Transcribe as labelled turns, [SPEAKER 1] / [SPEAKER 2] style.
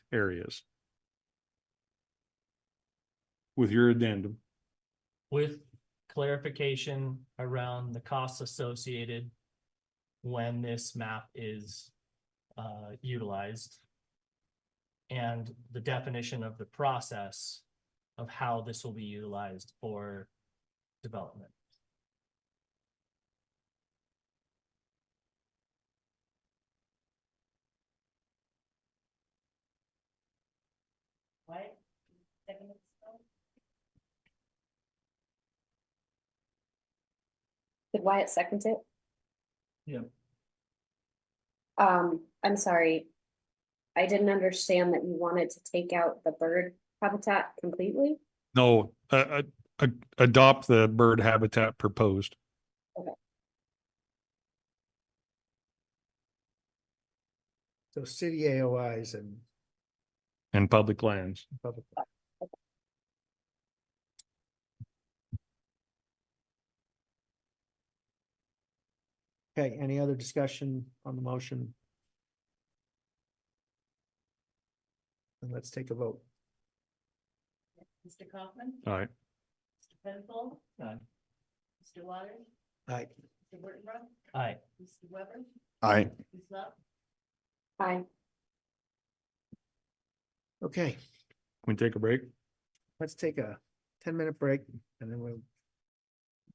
[SPEAKER 1] areas. With your addendum,
[SPEAKER 2] with clarification around the costs associated when this map is uh, utilized and the definition of the process of how this will be utilized for development.
[SPEAKER 3] What? Seven minutes ago?
[SPEAKER 4] Did Wyatt second it?
[SPEAKER 2] Yeah.
[SPEAKER 4] Um, I'm sorry. I didn't understand that you wanted to take out the bird habitat completely.
[SPEAKER 1] no, uh, uh, uh, adopt the bird habitat proposed.
[SPEAKER 5] So city AOIs and
[SPEAKER 1] And public lands.
[SPEAKER 5] public. Okay, any other discussion on the motion? And let's take a vote.
[SPEAKER 3] Mr. Kaufman?
[SPEAKER 1] All right.
[SPEAKER 3] Mr. Penfold?
[SPEAKER 2] Aye.
[SPEAKER 3] Mr. Waters?
[SPEAKER 5] Aye.
[SPEAKER 3] Mr. Wurtenbrock?
[SPEAKER 2] Aye.
[SPEAKER 3] Mr. Weber?
[SPEAKER 1] Aye.
[SPEAKER 3] Ms. Love?
[SPEAKER 4] Hi,
[SPEAKER 5] Okay,
[SPEAKER 1] We take a break?
[SPEAKER 5] let's take a ten minute break and then we'll